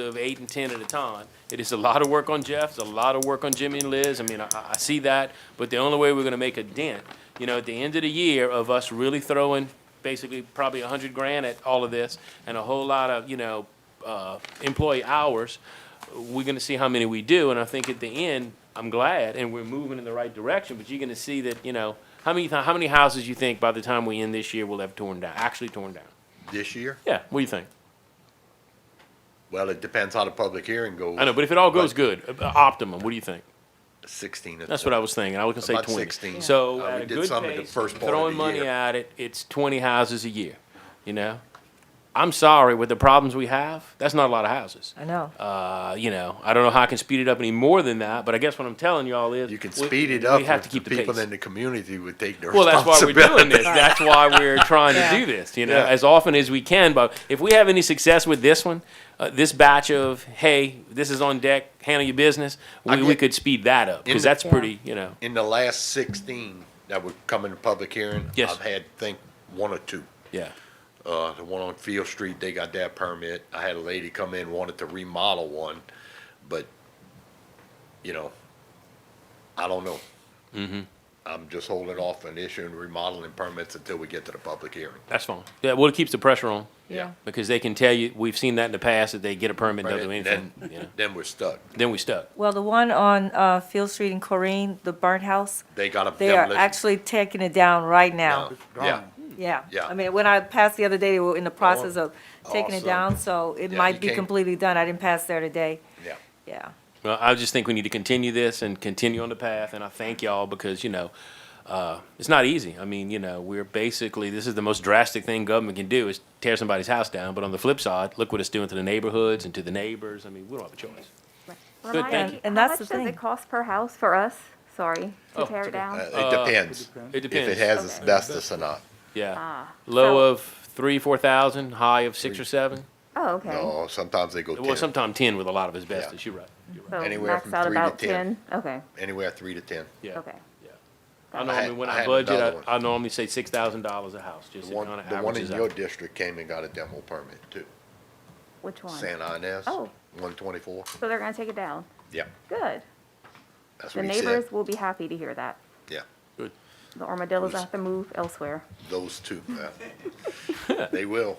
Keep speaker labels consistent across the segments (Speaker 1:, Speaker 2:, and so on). Speaker 1: of eight and 10 at a time. It is a lot of work on Jeff, it's a lot of work on Jimmy and Liz. I mean, I, I see that, but the only way we're gonna make a dent, you know, at the end of the year of us really throwing basically probably a hundred grand at all of this and a whole lot of, you know, uh, employee hours, we're gonna see how many we do. And I think at the end, I'm glad and we're moving in the right direction, but you're gonna see that, you know, how many, how many houses you think by the time we end this year will have torn down, actually torn down?
Speaker 2: This year?
Speaker 1: Yeah, what do you think?
Speaker 2: Well, it depends how the public hearing goes.
Speaker 1: I know, but if it all goes good, uh, optimum, what do you think?
Speaker 2: Sixteen.
Speaker 1: That's what I was thinking. I was gonna say
Speaker 2: About
Speaker 1: twenty.
Speaker 2: 16.
Speaker 1: So
Speaker 2: Uh,
Speaker 1: at
Speaker 2: we
Speaker 1: a
Speaker 2: did
Speaker 1: good
Speaker 2: some in the
Speaker 1: pace,
Speaker 2: first part of
Speaker 1: throwing
Speaker 2: the
Speaker 1: money
Speaker 2: year.
Speaker 1: at it, it's twenty houses a year, you know? I'm sorry, with the problems we have, that's not a lot of houses.
Speaker 3: I know.
Speaker 1: Uh, you know, I don't know how I can speed it up any more than that, but I guess what I'm telling y'all is.
Speaker 2: You can
Speaker 1: we-
Speaker 2: speed it
Speaker 1: we
Speaker 2: up.
Speaker 1: have
Speaker 2: if
Speaker 1: to keep
Speaker 2: the
Speaker 1: the
Speaker 2: People
Speaker 1: pace.
Speaker 2: in the community would take their
Speaker 1: Well, that's why we're doing
Speaker 2: responsibility.
Speaker 1: this. That's why we're trying to
Speaker 3: Yeah.
Speaker 1: do this, you know,
Speaker 2: Yeah.
Speaker 1: as often as we can. But if we have any success with this one, uh, this batch of, hey, this is on deck, handle your business,
Speaker 2: I
Speaker 1: we, we
Speaker 2: get-
Speaker 1: could speed that up
Speaker 2: In
Speaker 1: because
Speaker 2: the-
Speaker 1: that's
Speaker 3: Yeah.
Speaker 1: pretty, you know.
Speaker 2: In the last sixteen that would come in the public hearing,
Speaker 1: Yes.
Speaker 2: I've had, think, one or two.
Speaker 1: Yeah.
Speaker 2: Uh, the one on Field Street, they got that permit. I had a lady come in, wanted to remodel one, but, you know, I don't know.
Speaker 1: Mm-hmm.
Speaker 2: I'm just holding off on issuing remodeling permits until we get to the public hearing.
Speaker 1: That's fine. Yeah, well, it keeps the pressure on
Speaker 3: Yeah.
Speaker 1: because they can tell you, we've seen that in the past, that they get a permit, doesn't do
Speaker 2: Right,
Speaker 1: anything.
Speaker 2: Then,
Speaker 1: you know.
Speaker 2: then we're stuck.
Speaker 1: Then we stuck.
Speaker 3: Well, the one on uh, Field Street in Corrine, the burnt house,
Speaker 2: They got a
Speaker 3: they are
Speaker 2: demolition-
Speaker 3: actually taking it down right now.
Speaker 2: No, Yeah.
Speaker 3: Yeah.
Speaker 2: Yeah. Oh,
Speaker 3: I mean, when I passed the other day, they were in the process of taking it
Speaker 2: Awesome.
Speaker 3: down, so it
Speaker 2: Yeah,
Speaker 3: might
Speaker 2: you
Speaker 3: be
Speaker 2: can't-
Speaker 3: completely done. I didn't pass there today.
Speaker 2: Yeah.
Speaker 3: Yeah.
Speaker 1: Well, I just think we need to continue this and continue on the path, and I thank y'all because, you know, uh, it's not easy. I mean, you know, we're basically, this is the most drastic thing government can do is tear somebody's house down, but on the flip side, look what it's doing to the neighborhoods and to the neighbors. I mean, we don't have a choice.
Speaker 4: Well,
Speaker 1: Good,
Speaker 4: my-
Speaker 1: thank you.
Speaker 3: And
Speaker 4: How
Speaker 3: that's
Speaker 4: much
Speaker 3: the
Speaker 4: does
Speaker 3: thing.
Speaker 4: it cost per house for us? Sorry,
Speaker 1: Oh,
Speaker 4: to
Speaker 1: it's
Speaker 4: tear
Speaker 1: okay.
Speaker 4: it down?
Speaker 2: Uh, It depends
Speaker 1: It
Speaker 2: if it
Speaker 1: depends.
Speaker 2: has
Speaker 4: Okay.
Speaker 2: asbestos or not.
Speaker 1: Yeah.
Speaker 4: Ah, so-
Speaker 1: Low of three, four thousand, high of six or seven.
Speaker 4: Oh, okay.
Speaker 2: No, sometimes they go
Speaker 1: Well,
Speaker 2: ten,
Speaker 1: sometime ten with a lot of asbestos, you're right. You're right.
Speaker 4: So
Speaker 2: anywhere
Speaker 4: max
Speaker 2: from
Speaker 4: out
Speaker 2: three to
Speaker 4: about
Speaker 2: 10.
Speaker 4: 10? Okay,
Speaker 2: anywhere three to ten.
Speaker 1: Yeah.
Speaker 4: okay.
Speaker 1: I
Speaker 2: I
Speaker 1: normally,
Speaker 2: had-
Speaker 1: when
Speaker 2: I
Speaker 1: I
Speaker 2: had
Speaker 1: budget,
Speaker 2: another one.
Speaker 1: I, I normally say six thousand dollars a house, just
Speaker 2: The
Speaker 1: to
Speaker 2: one,
Speaker 1: kind of
Speaker 2: the one in
Speaker 1: averages
Speaker 2: your
Speaker 1: out.
Speaker 2: district came and got a demo permit too,
Speaker 4: Which one?
Speaker 2: San Ynez,
Speaker 4: Oh.
Speaker 2: one twenty-four.
Speaker 4: So they're gonna take it down?
Speaker 2: Yeah,
Speaker 4: Good.
Speaker 2: that's
Speaker 4: The
Speaker 2: what he said.
Speaker 4: neighbors will be happy to hear that.
Speaker 2: Yeah,
Speaker 1: Good.
Speaker 4: The armadillos
Speaker 2: Who's-
Speaker 4: have to move elsewhere.
Speaker 2: those two, uh, they will.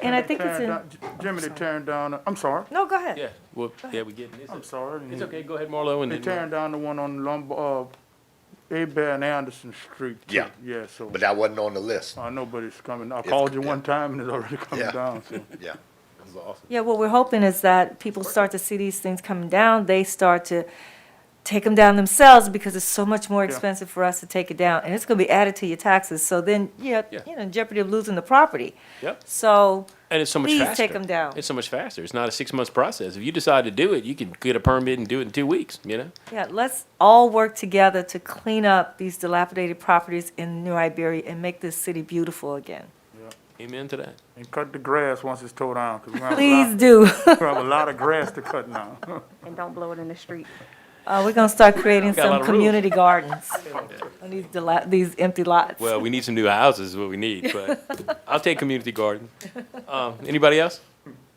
Speaker 3: And I think it's
Speaker 5: Turn
Speaker 3: in,
Speaker 5: down- J- Jimmy, they turned down, I'm sorry,
Speaker 3: no, go ahead.
Speaker 1: Yeah, well, yeah, we getting this.
Speaker 5: I'm sorry.
Speaker 1: It's okay, go ahead, Marlo, and
Speaker 5: They
Speaker 1: then. uh,
Speaker 5: turned down the one on Lombard, uh, Abear and Anderson Street. too.
Speaker 2: Yeah.
Speaker 5: Yeah, so,
Speaker 2: But that wasn't on the list,
Speaker 5: I know, but it's coming, I called you
Speaker 2: yeah.
Speaker 5: one time and it's already coming
Speaker 2: Yeah.
Speaker 5: down, so.
Speaker 2: yeah.
Speaker 3: Yeah, what we're hoping is that people start to see these things coming down, they start to take them down themselves because it's so much more expensive for us to take it down, and it's gonna be added to your taxes, so then, yeah,
Speaker 1: Yeah.
Speaker 3: you know, in jeopardy of losing the property.
Speaker 1: Yep.
Speaker 3: So,
Speaker 1: And it's so much
Speaker 3: Please
Speaker 1: faster.
Speaker 3: take 'em down.
Speaker 1: It's so much faster. It's not a six month process. If you decide to do it, you can get a permit and do it in two weeks, you know?
Speaker 3: yeah, let's all work together to clean up these dilapidated properties in New Iberia and make this city beautiful again.
Speaker 1: Amen to that.
Speaker 5: And cut the grass once it's towed down, because we have a
Speaker 3: Please
Speaker 5: lot,
Speaker 3: do.
Speaker 5: we have a lot of grass to cut now.
Speaker 4: And don't blow it in the street.
Speaker 3: Uh, we're gonna start creating
Speaker 1: Got a lot
Speaker 3: some
Speaker 1: of rules.
Speaker 3: community gardens on these dila- these empty lots.
Speaker 1: Well, we need some new houses, is what we need, but I'll take community garden. Um, anybody else?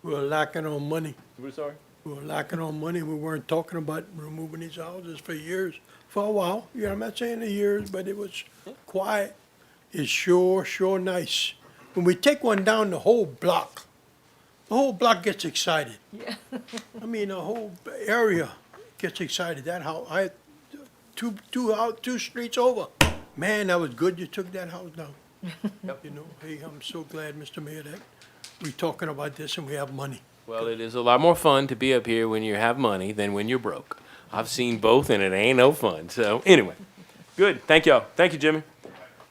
Speaker 6: We're lacking on money.
Speaker 1: We're sorry.
Speaker 6: We're lacking on money. We weren't talking about removing these houses for years, for a while. Yeah, I'm not saying the years, but it was quiet. It's sure, sure nice. When we take one down, the whole block, the whole block gets excited. Yeah. I mean, the whole area gets excited. That house, I, two, two out, two streets over. Man, that was good you took that house down. You know, hey, I'm so glad, Mr. Mayor, that we talking about this and we have money.
Speaker 1: Well, it is a lot more fun to be up here when you have money than when you're broke. I've seen both and it ain't no fun. So anyway, good. Thank y'all. Thank you, Jimmy.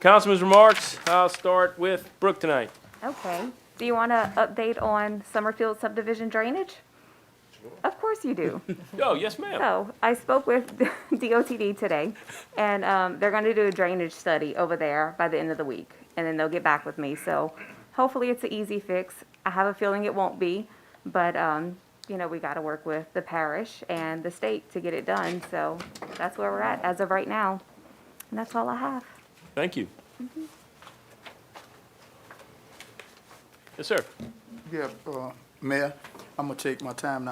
Speaker 1: Councilman's remarks. I'll start with Brooke tonight.
Speaker 4: Okay. Do you wanna update on Summerfield subdivision drainage? Of course you do.
Speaker 1: Oh, yes, ma'am.
Speaker 4: So I spoke with DOTD today, and um, they're going to do a drainage study over there by the end of the week, and then they'll get back with me. So hopefully it's an easy fix. I have a feeling it won't be, but um, you know we got to work with the parish and the state to get it done. So that's where we're at as of right now, and that's all I have.
Speaker 1: Thank you. Yes, sir.
Speaker 5: Yeah, uh, Mayor, I'm gonna take my time now.